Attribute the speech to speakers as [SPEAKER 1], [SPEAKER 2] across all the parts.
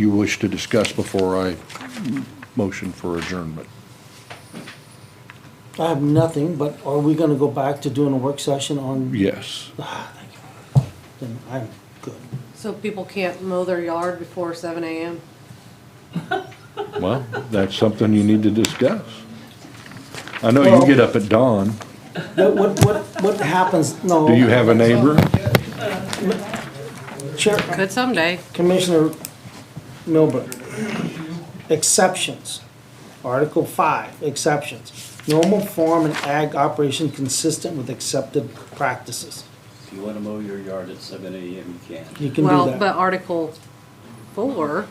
[SPEAKER 1] you wish to discuss before I motion for adjournment?
[SPEAKER 2] I have nothing, but are we gonna go back to doing a work session on?
[SPEAKER 1] Yes.
[SPEAKER 2] Ah, thank you. Then I'm good.
[SPEAKER 3] So people can't mow their yard before seven AM?
[SPEAKER 1] Well, that's something you need to discuss. I know you get up at dawn.
[SPEAKER 2] What, what, what, what happens, no.
[SPEAKER 1] Do you have a neighbor?
[SPEAKER 2] Chair,
[SPEAKER 3] Could someday.
[SPEAKER 2] Commissioner Milburn, exceptions. Article five, exceptions. Normal farm and ag operation consistent with accepted practices.
[SPEAKER 4] If you want to mow your yard at seven AM, you can.
[SPEAKER 2] You can
[SPEAKER 3] Well,
[SPEAKER 2] do
[SPEAKER 3] but
[SPEAKER 2] that.
[SPEAKER 3] Article four,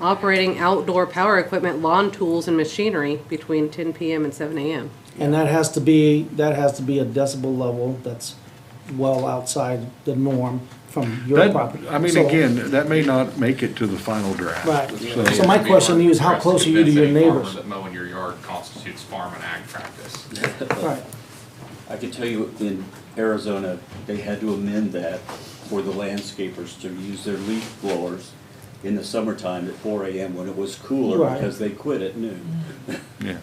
[SPEAKER 3] operating outdoor power equipment, lawn tools and machinery between ten PM and seven AM.
[SPEAKER 2] And that has to be, that has to be a decibel level that's well outside the norm from your
[SPEAKER 1] That-
[SPEAKER 2] property.
[SPEAKER 1] I mean,
[SPEAKER 2] So-
[SPEAKER 1] again, that may not make it to the final draft.
[SPEAKER 2] Right. So
[SPEAKER 1] So,
[SPEAKER 2] my question to you is how close are you to your neighbors?
[SPEAKER 5] That mowing your yard constitutes farm and ag practice.
[SPEAKER 2] Right.
[SPEAKER 4] I can tell you in Arizona, they had to amend that for the landscapers to use their leaf blowers in the summertime at four AM when it was cooler
[SPEAKER 2] Right.
[SPEAKER 4] because they quit at noon.
[SPEAKER 1] yeah.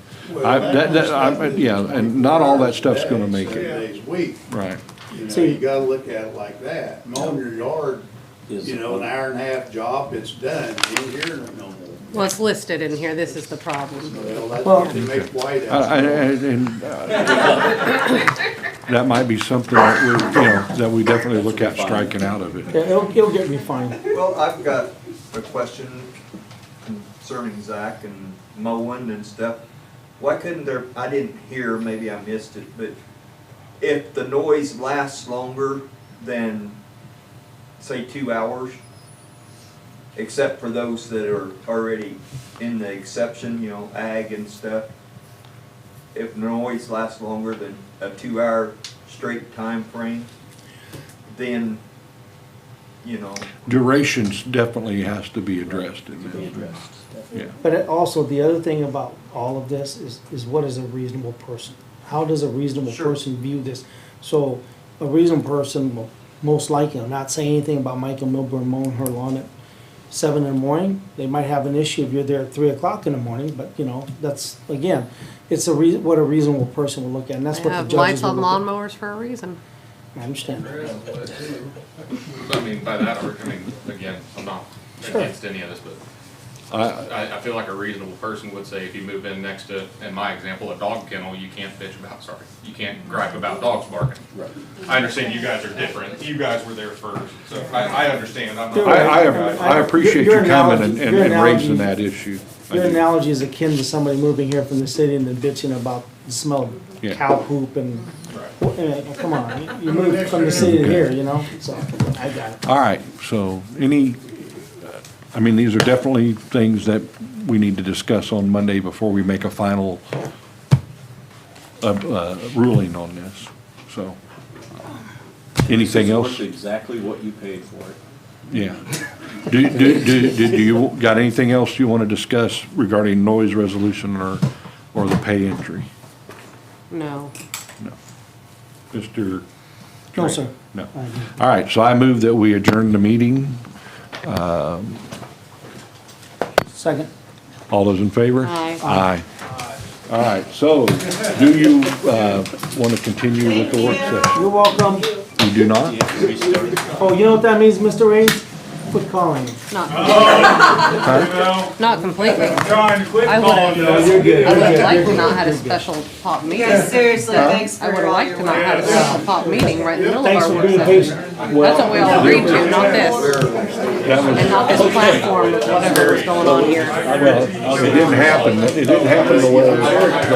[SPEAKER 1] I, that, that, I, yeah, and not all that stuff's gonna make it,
[SPEAKER 6] Seven days a week,
[SPEAKER 1] right.
[SPEAKER 6] you know,
[SPEAKER 2] See-
[SPEAKER 6] you gotta look at it like that. Mowing your yard,
[SPEAKER 4] Is-
[SPEAKER 6] you know, an hour and a half job, it's done, you ain't hearing it no more.
[SPEAKER 3] Well, it's listed in here, this is the problem.
[SPEAKER 6] Well, that's
[SPEAKER 2] Well-
[SPEAKER 6] what they make white
[SPEAKER 1] I- I- I-
[SPEAKER 6] out.
[SPEAKER 1] and, uh, That might be something that we, you know, that we definitely look at striking out of it.
[SPEAKER 2] Yeah, it'll, it'll get refined.
[SPEAKER 7] Well, I've got a question concerning Zach and mowing and stuff. Why couldn't there, I didn't hear, maybe I missed it, but if the noise lasts longer than, say, two hours, except for those that are already in the exception, you know, ag and stuff, if noise lasts longer than a two-hour straight time frame, then, you know,
[SPEAKER 1] Durations definitely has to be addressed in
[SPEAKER 4] Be
[SPEAKER 1] this,
[SPEAKER 4] addressed.
[SPEAKER 1] yeah.
[SPEAKER 2] But it also, the other thing about all of this is, is what is a reasonable person? How does a reasonable
[SPEAKER 7] Sure.
[SPEAKER 2] person view this? So a reasonable person will most likely, I'm not saying anything about Michael Milburn mowing her lawn at seven in the morning. They might have an issue if you're there at three o'clock in the morning, but you know, that's, again, it's a rea, what a reasonable person will look at, and
[SPEAKER 3] They
[SPEAKER 2] that's what the
[SPEAKER 3] have
[SPEAKER 2] judges
[SPEAKER 3] lights
[SPEAKER 2] will
[SPEAKER 3] on
[SPEAKER 2] look
[SPEAKER 3] lawnmowers for a reason.
[SPEAKER 2] at. I understand.
[SPEAKER 5] I mean, by that, or, I mean, again, I'm not
[SPEAKER 2] Sure.
[SPEAKER 5] against any of this, but I, I feel like a reasonable person would say if you move in next to, in my example, a dog kennel, you can't bitch about, sorry, you can't gripe about dogs barking.
[SPEAKER 4] Right.
[SPEAKER 5] I understand you guys are different. You guys were there first, so I, I understand. I'm not-
[SPEAKER 1] I, I, I appreciate you
[SPEAKER 2] Your analogy-
[SPEAKER 1] coming and, and
[SPEAKER 2] your
[SPEAKER 1] and raising
[SPEAKER 2] analogy-
[SPEAKER 1] that issue. I
[SPEAKER 2] Your
[SPEAKER 1] do.
[SPEAKER 2] analogy is akin to somebody moving here from the city and then bitching about the smell of
[SPEAKER 1] Yeah.
[SPEAKER 2] cow poop and,
[SPEAKER 5] Right.
[SPEAKER 2] Eh, come on, you- you moved from the city to here, you know, so, I got it.
[SPEAKER 1] All right, so any, I mean, these are definitely things that we need to discuss on Monday before we make a final uh, uh, ruling on this, so. Anything
[SPEAKER 4] It's
[SPEAKER 1] else?
[SPEAKER 4] worth Exactly what you paid for it.
[SPEAKER 1] Yeah. Do, do, do, do do you, got anything else you want to discuss regarding noise resolution or, or the pay entry?
[SPEAKER 3] No.
[SPEAKER 1] Mr.?
[SPEAKER 2] No, sir.
[SPEAKER 1] No.
[SPEAKER 2] I agree.
[SPEAKER 1] All right, so I move that we adjourn the meeting.
[SPEAKER 2] Second.
[SPEAKER 1] All those in favor?
[SPEAKER 3] Aye.
[SPEAKER 1] Aye. All right, so do you want to continue with the work session?
[SPEAKER 2] You're welcome.
[SPEAKER 1] You do not?
[SPEAKER 4] We started-
[SPEAKER 2] Oh, you know what that means, Mr. Reeves? Quit calling me.
[SPEAKER 3] Not, not completely. I would have,
[SPEAKER 2] You're good.
[SPEAKER 3] I would have liked to not had a special pop meeting.
[SPEAKER 8] Yeah, seriously, thanks
[SPEAKER 3] I
[SPEAKER 8] for
[SPEAKER 3] would have
[SPEAKER 8] all
[SPEAKER 3] liked
[SPEAKER 8] your
[SPEAKER 3] to not
[SPEAKER 8] work.
[SPEAKER 3] have a special pop meeting right in the middle of
[SPEAKER 2] Thanks
[SPEAKER 3] our
[SPEAKER 2] for
[SPEAKER 3] work
[SPEAKER 2] being
[SPEAKER 3] session.
[SPEAKER 2] patient.
[SPEAKER 3] That's what we all agreed to, not this. And not this platform of whatever was going on here.
[SPEAKER 1] It didn't happen, it didn't happen the way it was.